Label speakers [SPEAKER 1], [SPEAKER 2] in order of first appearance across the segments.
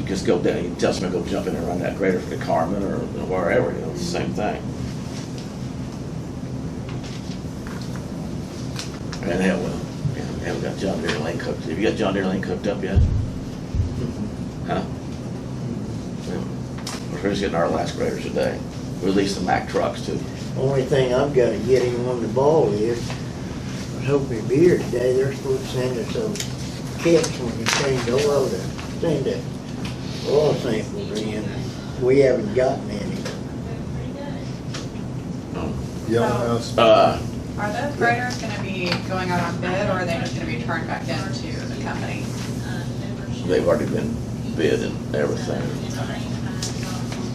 [SPEAKER 1] just go down, you tell somebody to go jump in and run that grader for the Carmen or wherever, you know, it's the same thing. And that will, yeah, we haven't got John Deere Lane cooked, have you got John Deere Lane cooked up yet? Huh? No. We're just getting our last graders today, or at least the Mack trucks too.
[SPEAKER 2] Only thing I've got to get him on the ball is, I was hoping to be here today, they're supposed to send us some kits when you change the oil to send the oil samples in. We haven't gotten any.
[SPEAKER 3] Yellow House,
[SPEAKER 1] Uh,
[SPEAKER 4] Are those graders gonna be going out on bid, or are they just gonna be turned back into the company?
[SPEAKER 1] they've already been bid and everything.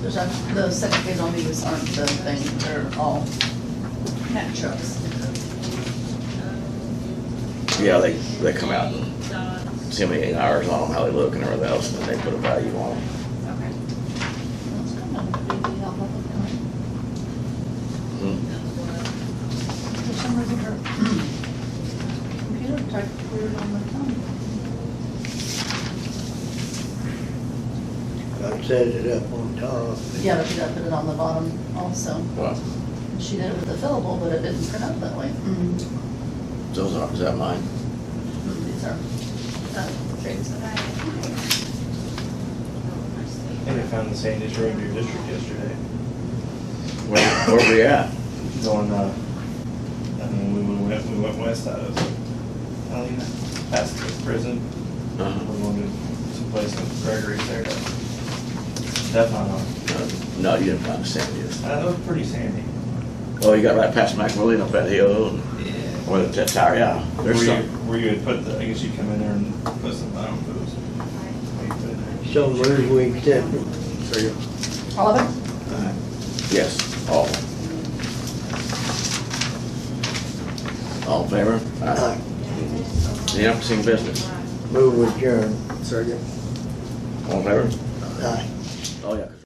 [SPEAKER 5] There's a, the second page on these aren't the thing, they're all
[SPEAKER 4] No.
[SPEAKER 5] trucks.
[SPEAKER 1] Yeah, they, they come out and see how many eight hours on them, how they look and everything else, and then they put a value on them.
[SPEAKER 4] Okay.
[SPEAKER 5] That's kind of a big deal, but
[SPEAKER 1] Hmm.
[SPEAKER 5] For some reason, her computer typed weird on the thumb.
[SPEAKER 2] I set it up on top.
[SPEAKER 5] Yeah, but she got put it on the bottom also.
[SPEAKER 1] Well,
[SPEAKER 5] She did it with the fillable, but it didn't print out that way.
[SPEAKER 1] those are, is that mine?
[SPEAKER 5] Mm-hmm. These are, uh, trades that I-
[SPEAKER 6] And I found the same issue in your district yesterday.
[SPEAKER 1] Where, where we at?
[SPEAKER 6] It's on, uh, I mean, we went, west- we went west out of, I don't even, past the prison. We're
[SPEAKER 1] Uh-huh.
[SPEAKER 6] going to someplace in Gregory's there. to- That's not on.
[SPEAKER 1] No, No, you didn't find the sand dunes.
[SPEAKER 6] Uh, it was pretty sandy.
[SPEAKER 1] Oh, you got right past McMillan up that hill, and-
[SPEAKER 6] Yeah.
[SPEAKER 1] or that tire, yeah,
[SPEAKER 6] Where
[SPEAKER 1] there's
[SPEAKER 6] you,
[SPEAKER 1] some.
[SPEAKER 6] where you would put the, I guess you come in there and put some, I don't know, if it was- what you put in there.
[SPEAKER 2] So move we accept it.
[SPEAKER 5] All of it?
[SPEAKER 1] Yes, Oh. all. All in favor?
[SPEAKER 6] Uh,
[SPEAKER 2] Aye.
[SPEAKER 1] Any unforeseen business?
[SPEAKER 2] Move adjourned.
[SPEAKER 3] second.
[SPEAKER 1] All in favor?
[SPEAKER 2] Aye.
[SPEAKER 1] Oh, yeah.